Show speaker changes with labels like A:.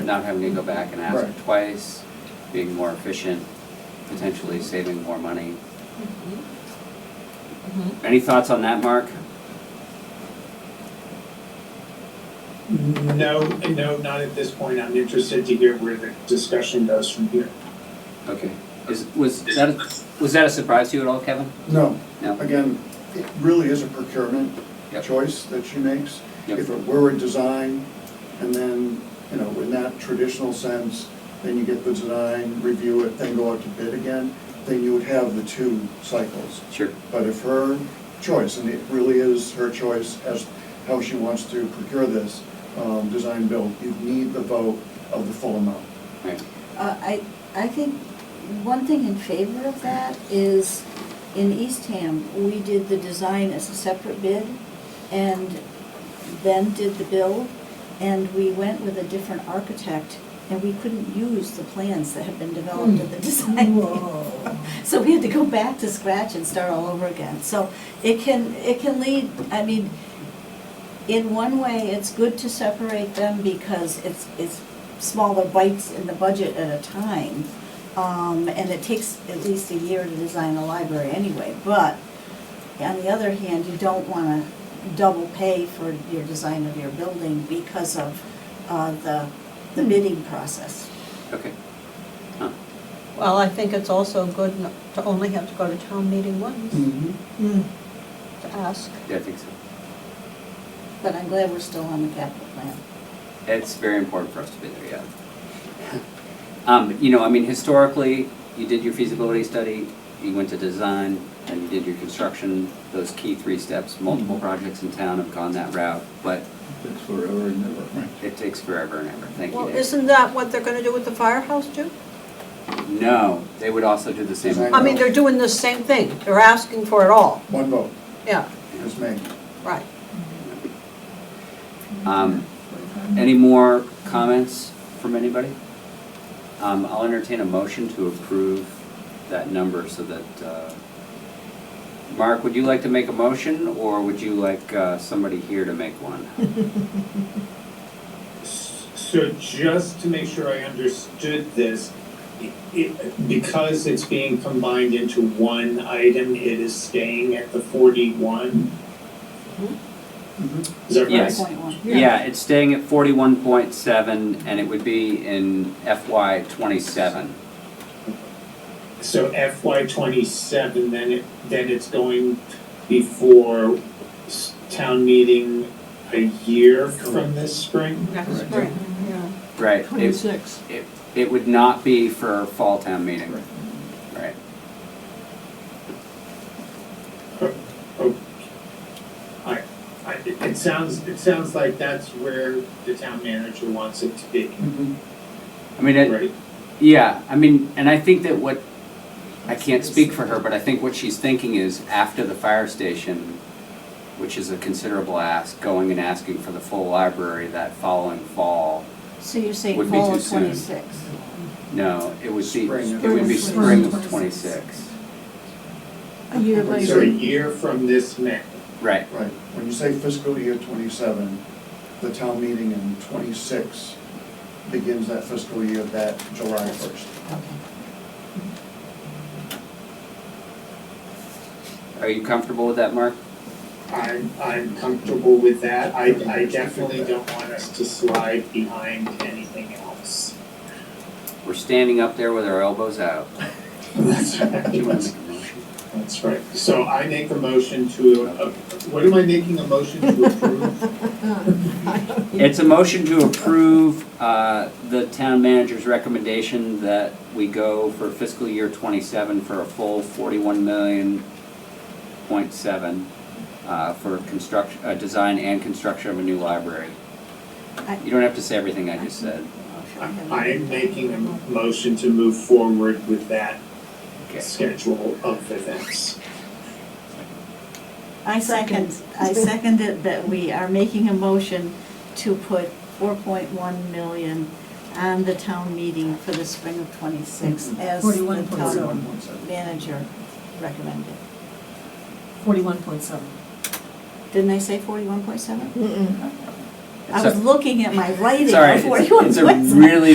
A: not having to go back and ask
B: Right.
A: twice, being more efficient, potentially saving more money. Any thoughts on that, Mark?
B: No, no, not at this point. I'm interested to hear where the discussion goes from here.
A: Okay, is, was that, a- was that a surprise to you at all, Kevin?
C: No,
A: No?
C: again, it really is a procurement
A: Yep.
C: choice that she makes.
A: Yep.
C: If it were a design, and then, you know, in that traditional sense, then you get the design, review it, then go out to bid again, then you would have the two cycles.
A: Sure.
C: But if her choice, and it really is her choice as how she wants to procure this, um, design build, you need the vote of the full amount.
A: Right.
D: Uh, I, I think one thing in favor of that is in Eastham, we did the design as a separate bid and then did the build. And we went with a different architect and we couldn't use the plans that had been developed in the design. So we had to go back to scratch and start all over again. So it can, it can lead, I mean, in one way, it's good to separate them because it's, it's smaller bites in the budget at a time. Um, and it takes at least a year to design a library anyway, but on the other hand, you don't wanna double pay for your design of your building because of, uh, the,
E: Hmm.
D: the bidding process.
A: Okay. Huh.
F: Well, I think it's also good not to only have to go to town meeting once Hmm. to ask.
A: Yeah, I think so.
D: But I'm glad we're still on the capital plan.
A: It's very important for us to be there, yeah. Um, you know, I mean, historically, you did your feasibility study, you went to design, and you did your construction, those key three steps. Multiple projects in town have gone that route, but
G: It's forever and ever.
A: it takes forever and ever. Thank you,
F: Well,
A: Dave.
F: isn't that what they're gonna do with the firehouse too?
A: No, they would also do the same.
C: Design.
F: I mean, they're doing the same thing, they're asking for it all,
C: One vote
F: yeah,
C: is made.
F: right.
A: Um, Any more comments from anybody? Um, I'll entertain a motion to approve that number so that, uh, Mark, would you like to make a motion, or would you like uh, somebody here to make one?
B: S- So just to make sure I understood this, i- it, because it's being combined into one item, it is staying at the forty-one? Is that right?
A: Yes.
D: Point one.
A: Yeah, it's staying at forty-one point seven, and it would be in FY twenty-seven.
B: So FY twenty-seven, then it, then it's going before s- town meeting a year from this spring?
F: Next
G: Correct.
F: spring, yeah.
A: Right. It,
E: Twenty-six.
A: it, it would not be for fall town meeting. Right.
B: I, it, it sounds, it sounds like that's where the town manager wants it to be,
G: Mm-hmm.
A: I mean, it,
B: right?
A: Yeah, I mean, and I think that what, I can't speak for her, but I think what she's thinking is after the fire station, which is a considerable ask, going and asking for the full library that following fall.
D: So you're saying
A: Would be
D: fall
A: too
D: of
A: soon.
D: twenty-six?
A: No, it would be,
C: Spring of
A: it would be spring of
E: 26.
A: twenty-six.
E: A year
B: So a
E: later.
B: year from this May.
A: Right,
C: Right, when you say fiscal year twenty-seven, the town meeting in twenty-six begins that fiscal year that July first.
D: Okay.
A: are you comfortable with that, Mark?
B: I'm, I'm comfortable with that. I, I definitely don't want us to slide behind anything else.
A: We're standing up there with our elbows out.
B: That's
A: Do you wanna
B: right.
A: make a motion?
B: That's right. So I make a motion to, uh, what am I making a motion to approve?
A: It's a motion to approve uh, the town manager's recommendation that we go for fiscal year twenty-seven for a full forty-one million point seven uh, for construction, uh, design and construction of a new library.
D: I-
A: You don't have to say everything I just said.
B: I I am making a motion to move forward with that schedule of events.
D: I second, I second it that we are making a motion to put four point one million on the town meeting for the spring of twenty-six as the
E: 41.7.
D: town manager recommended.
E: Forty-one point seven.
D: Didn't I say forty-one point seven? I was
A: So-
D: looking at my writing
A: Sorry,
D: before you were.
A: it's, it's a really